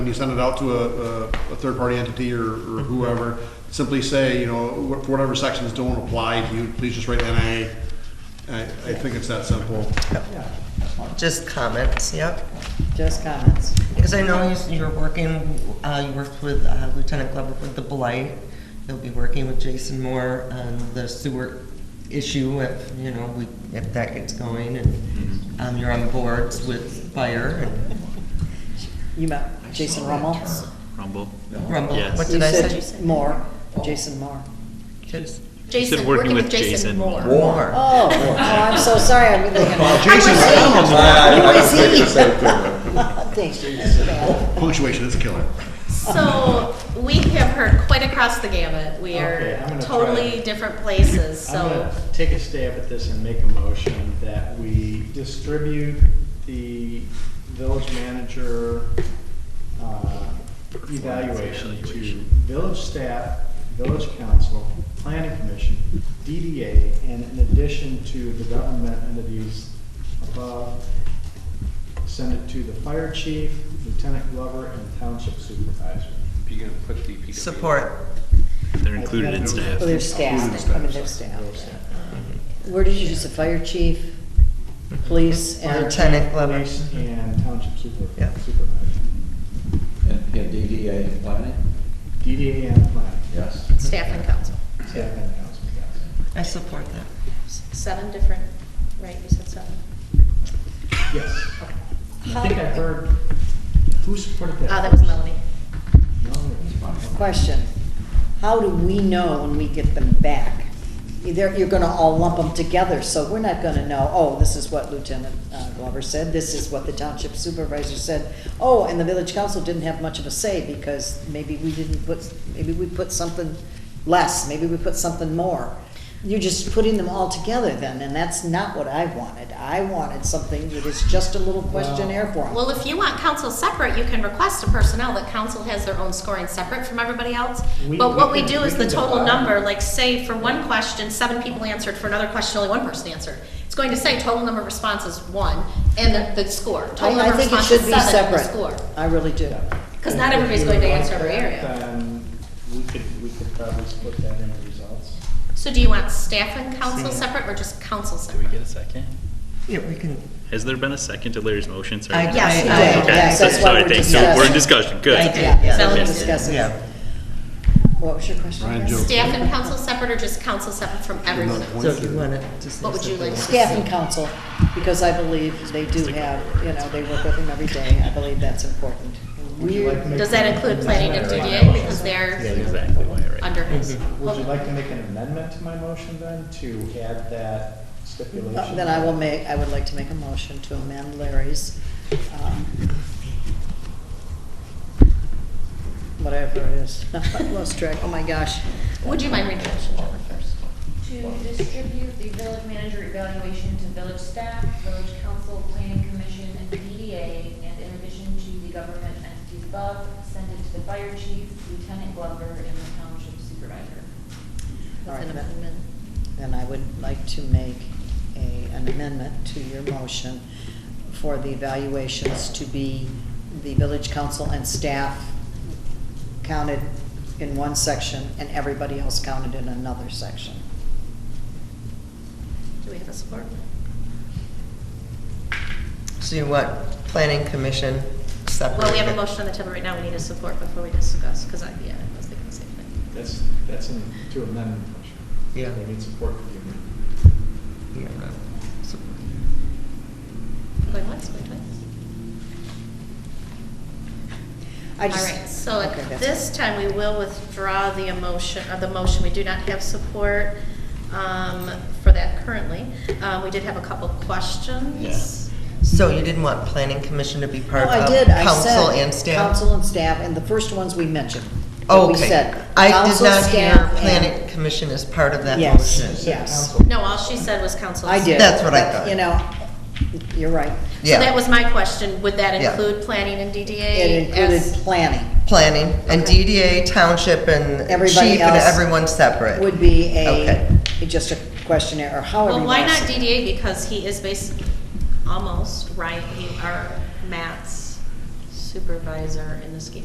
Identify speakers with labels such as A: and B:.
A: When you send it out to a, a, a third-party entity or, or whoever, simply say, you know, wh- whatever sections don't apply to you, please just write NA. I, I think it's that simple.
B: Just comments, yep.
C: Just comments.
B: Because I know you- you're working, uh, you worked with uh, Lieutenant Glover with the blight. You'll be working with Jason Moore on the sewer issue if, you know, we, if that gets going
D: Mm-hmm.
B: and, um, you're on boards with fire
C: You met Jason Rummel.
D: Rumble.
B: and rumble.
D: Yes.
B: What
C: You
B: did I say?
C: said Moore, Jason Moore.
B: Just-
D: Said
E: Jason,
D: working
E: working
D: with
E: with Jason
D: Jason.
E: Moore.
B: War.
C: Oh, oh, I'm so sorry, I'm thinking.
A: Jason,
C: Thank you. That's bad.
A: punctuation is a killer.
E: So we have heard quite across the gamut. We
F: Okay, I'm
E: are
F: gonna try.
E: totally different places,
F: I'm
E: so.
F: gonna take a stab at this and make a motion that we distribute the village manager uh, evaluation to village staff, village council, planning commission, DDA, and in addition to the government entities above, send it to the fire chief, lieutenant glover, and township supervisor.
G: You're gonna put the PWA.
B: Support.
D: They're included in staff.
C: Well, Their staff, I mean, their staff.
F: Village staff.
D: Mm-hmm.
C: Where did you use the fire chief, police,
F: Fire
C: and,
F: chief,
B: Lieutenant Glover.
F: police, And township super-
B: Yeah.
F: supervisor.
H: And and DDA and planning?
F: DDA and planning.
H: Yes.
E: Staff and council.
F: Staff and council, yes.
B: I support that.
E: Seven different, right, you said seven?
F: Yes. I think I heard, who supported that?
E: Ah, that was Melanie.
F: No, it was fine.
C: question. How do we know when we get them back? Either, you're gonna all lump them together, so we're not gonna know, oh, this is what Lieutenant uh, Glover said, this is what the township supervisor said. Oh, and the village council didn't have much of a say because maybe we didn't put, maybe we put something less, maybe we put something more. You're just putting them all together then, and that's not what I wanted. I wanted something that is just a little questionnaire for them.
E: Well, if you want council separate, you can request a personnel that council has their own scoring separate from everybody else.
F: We-
E: But what we
F: we
E: do
F: can-
E: is the
F: we can
E: total
F: divide.
E: number, like say for one question, seven people answered, for another question, only one person answered. It's going to say total number of responses, one, and the, the score. Total
C: I, I
E: number of
C: think it
E: responses,
C: should be
E: seven, and the
C: separate.
E: score.
C: I really do.
E: Because not everybody's going to answer every area.
F: Then um, we could, we could probably split that into results.
E: So do you want staff and council
F: Same.
E: separate or just council
D: Do we
E: separate?
D: get a second?
B: Yeah, we can,
D: Has there been a second to Larry's motion? Sorry.
B: I, I,
E: Yeah. Yes, you
B: I-
F: Oh,
E: did.
D: Okay,
C: Yes, that's
D: so-
C: what
D: so I
C: we're
D: think- so We're in discussion,
B: I
D: good.
B: did,
C: Yeah,
B: yes.
C: now we're
B: Yes.
C: discussing.
B: Yeah.
C: What was your question?
A: Ryan
C: again?
A: Joe.
E: Staff and council separate or just council separate from everyone else?
B: So you want to just.
E: What would you like to
C: Staff and council, because I believe they do have, you know, they work with them every day. I believe that's important.
F: Would you like to make-
E: Does that include planning and DDA because
D: Yeah,
E: they're
D: exactly why, right?
E: under his?
F: Would you like to make an amendment to my motion then, to add that stipulation?
C: Uh, Then I will make, I would like to make a motion to amend Larry's, um, whatever it is. I lost track. Oh, my gosh.
E: Would you mind reading it, Jennifer, first?
I: To distribute the village manager evaluation to village staff, village council, planning commission, and DDA, and in addition to the government entities above, send it to the fire chief, lieutenant glover, and the township supervisor.
C: All right,
E: With an
C: then.
E: amendment.
C: Then I would like to make a, an amendment to your motion for the evaluations to be the village council and staff counted in one section and everybody else counted in another section.
E: Do we have a support?
B: So you want planning commission separate?
E: Well, we have a motion on the table right now. We need a support before we discuss, because I, yeah, I was thinking the same thing.
F: That's, that's an- to amend the motion.
B: Yeah.
F: They need support for the amendment.
B: Yeah, no. So-
E: Going once, going twice.
C: I
E: All
C: just-
E: right, so at
C: Okay, that's-
E: this time, we will withdraw the emotion, uh, the motion. We do not have support um, for that currently. Uh, We did have a couple questions.
B: So you didn't want planning commission to be part
C: No, I
B: of
C: did. I
B: council
C: said
B: and staff? Oh,
C: Council and staff, and the first ones we mentioned. that we
B: Okay.
C: said,
B: I did
C: council,
B: not hear
C: staff,
B: planning
C: and-
B: commission as part of that
C: Yes.
B: motion.
C: Yes.
F: Council.
E: No, all she said was council.
C: I did.
B: That's what I
C: but,
B: thought.
C: You know, you're right.
E: So
B: Yeah.
E: that was my question. Would that
B: Yeah.
E: include planning and DDA?
C: It included
E: as-
C: planning.
B: Planning and
E: Okay.
B: DDA, township and
C: Everybody
B: chief and
C: else
B: everyone separate.
C: would be a,
B: Okay.
C: just a questionnaire, or however
E: Well,
C: you
E: why
C: wanna
E: not
C: say it.
E: DDA? Because he is basically almost, right, he are Matt's supervisor in the scheme